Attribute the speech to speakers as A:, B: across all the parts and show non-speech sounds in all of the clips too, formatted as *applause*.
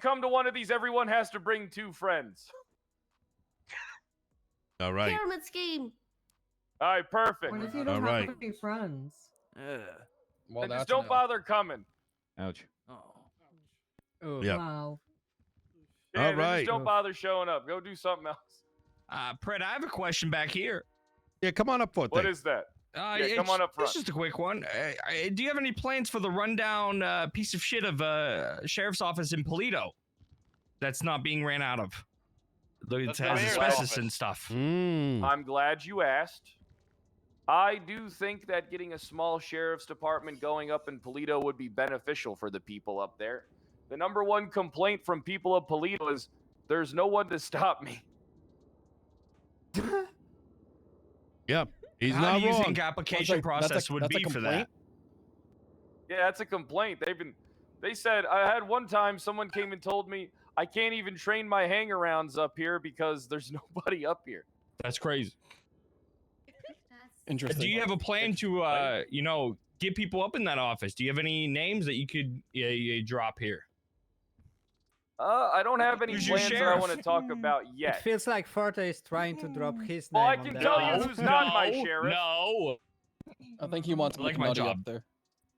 A: come to one of these, everyone has to bring two friends.
B: All right.
C: Pyramid scheme.
A: All right, perfect.
D: What if you
B: All
D: don't
B: right.
D: have any friends?
E: Ugh.
A: then
F: Well,
A: just
F: that's an
A: don't
F: L.
A: bother coming.
G: Ouch.
E: Oh.
F: Ugh.
B: Yeah.
D: Wow.
A: Yeah,
B: All
A: then
B: right.
A: Just don't bother showing up. Go do something else.
H: Uh, Pred, I have a question back here.
B: Yeah, come on up for it.
A: What
B: thank-
A: is that?
H: Uh,
A: Yeah, come
H: it's-
A: on up front.
H: This is just a quick one. Uh, uh, do you have any plans for the rundown uh, piece of shit of uh, sheriff's office in Polito that's not being ran out of? It
I: That's the
H: has
I: mayor's
H: asbestos
I: office.
H: and stuff.
B: Mm.
A: I'm glad you asked. I do think that getting a small sheriff's department going up in Polito would be beneficial for the people up there. The number one complaint from people of Polito is there's no one to stop me.
B: Yeah, he's
H: How
B: not
H: do you
B: wrong.
H: think application
F: That's a- that's a-
H: process would
F: that's a
H: be for that?
A: Yeah, that's a complaint. They've been they said I had one time someone came and told me I can't even train my hangarounds up here because there's *laughs* nobody up here.
H: That's crazy.
C: That's
F: Interesting.
H: Uh, Do you have a plan to, uh, you know, get people up in that office? Do you have any names that you could yeah, yeah, drop here?
A: Uh, I don't have any
H: Who's your
A: plans that I
H: sheriff?
A: want to talk
H: *laughs*
A: about
D: It
A: yet.
D: feels like Farta is trying to drop his
A: Well, Oh, I
D: name.
A: can
D: on
A: tell
D: that
A: you
D: list.
A: who's not my
H: No,
A: sheriff.
H: No.
F: I think he wants
H: I like
F: like
H: my
F: my
H: job.
F: up there.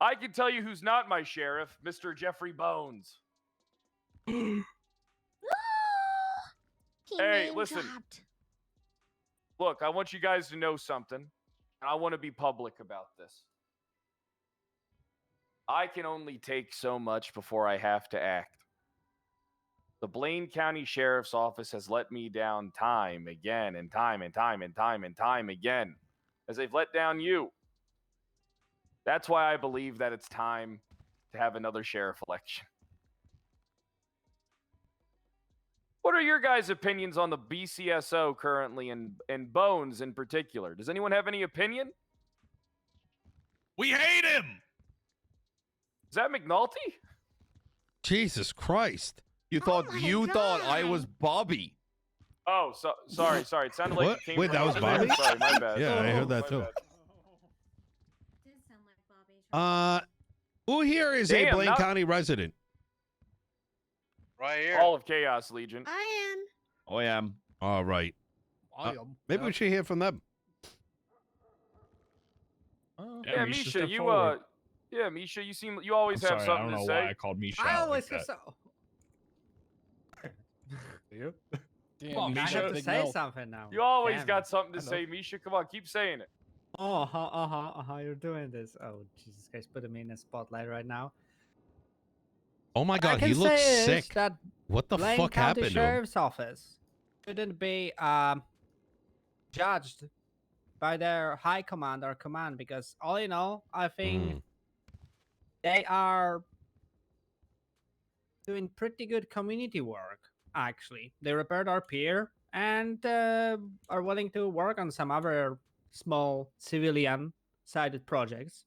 A: I can tell you who's not my sheriff, Mr. Jeffrey Bones.
C: Ah! He
A: Hey,
C: name
A: listen.
C: dropped.
A: Look, I want you guys to know something, and I want to be public about this. I can only take so much before I have to act. The Blaine County Sheriff's Office has let me down time again and time and time and time and time again, as they've let down you. That's why I believe that it's time to have another sheriff election. *laughs* What are your guys' opinions on the BCSO currently and, and Bones in particular? Does anyone have any opinion?
E: We hate him.
A: Is that McNulty?
B: Jesus Christ.
G: You
C: Oh
G: thought
C: my
G: you thought I
C: God.
G: was Bobby.
A: Oh, so, sorry, sorry. It sounded like
B: What?
A: it came
B: Wait,
A: from
B: that was
A: over there.
B: Bobby?
A: Sorry, my bad.
B: Yeah, I heard that
A: My
B: too.
A: bad.
C: Did sound like
B: Uh,
C: Bobby.
B: who here is a
A: Damn,
B: Blaine
A: not-
B: County resident?
I: Right here.
A: All of Chaos Legion.
C: I am.
G: Oh, I am.
B: All right.
F: I
B: Uh,
F: am.
B: Maybe we should hear from them.
F: Uh,
A: Yeah,
H: Misha,
A: Misha,
H: step
A: you
H: forward.
A: uh, yeah, Misha, you seem you always
H: I'm
A: have
H: sorry, I
A: something
H: don't know
A: to
H: why I
A: say.
H: called Misha.
D: I
H: out
D: always
H: like
D: have
H: that.
D: so.
F: Damn,
H: Well,
F: you
D: I
H: Misha,
D: have
F: should
D: to
F: big
D: say
F: mouth.
D: something now.
A: You always
D: Damn.
A: got something to
D: I know.
A: say, Misha. Come on, keep saying it.
D: Oh, uh-huh, uh-huh, uh-huh, you're doing this. Oh, Jesus Christ, putting me in a spotlight right now.
B: Oh my
D: What I
B: God, he
D: can
B: looks
D: say is
B: sick.
D: That
B: What the
D: Blaine
B: fuck
D: County
B: happened to him?
D: Sheriff's Office shouldn't be um, judged by their high command or command because all in all, I think
B: Mm.
D: they are doing pretty good community work. Actually, they repaired our pier and uh, are willing to work on some other small civilian-sided projects.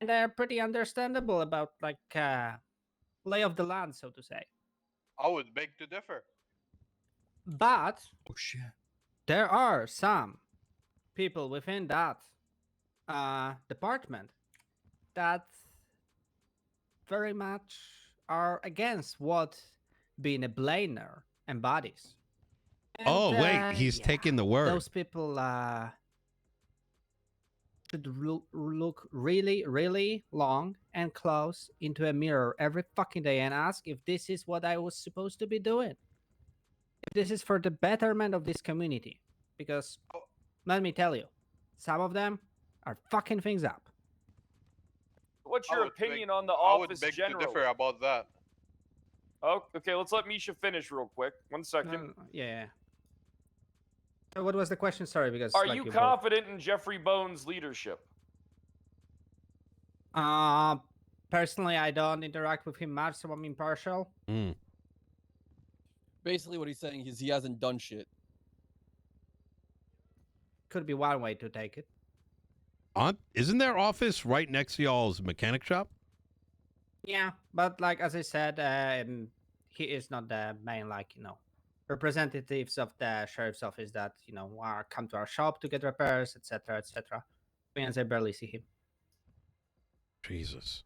D: And they're pretty understandable about like uh, lay of the land, so to say.
I: I would beg to differ.
D: But
H: Oh shit.
D: there are some people within that uh, department that very much are against what being a blainer embodies. And,
B: Oh,
D: uh,
B: wait. He's
D: yeah,
B: taking the word.
D: Those people uh, should lo- look really, really long and close into a mirror every fucking day and ask if this is what I was supposed to be doing. If this is for the betterment of this community. Because oh, let me tell you, some of them are fucking things up.
A: What's
I: I
A: your
I: would beg-
A: opinion on the
I: I would
A: office
I: beg to
A: general?
I: differ about that.
A: Oh, okay, let's let Misha finish real quick. One second.
D: No, no, Uh, yeah. So what was the question? Sorry, because
A: Are
D: like,
A: you
D: both-
A: confident in Jeffrey Bones' leadership?
D: Uh, personally, I don't interact with him much, so I'm impartial.
B: Mm.
F: Basically, what he's saying is he hasn't done shit.
D: Could be one way to take it.
B: Aren't, isn't their office right next to y'all's mechanic shop?
D: Yeah, but like as I said, um, he is not the main like you know representatives of the sheriff's office that you know are come to our shop to get repairs, etc., etc. Means I barely see him.
B: Jesus.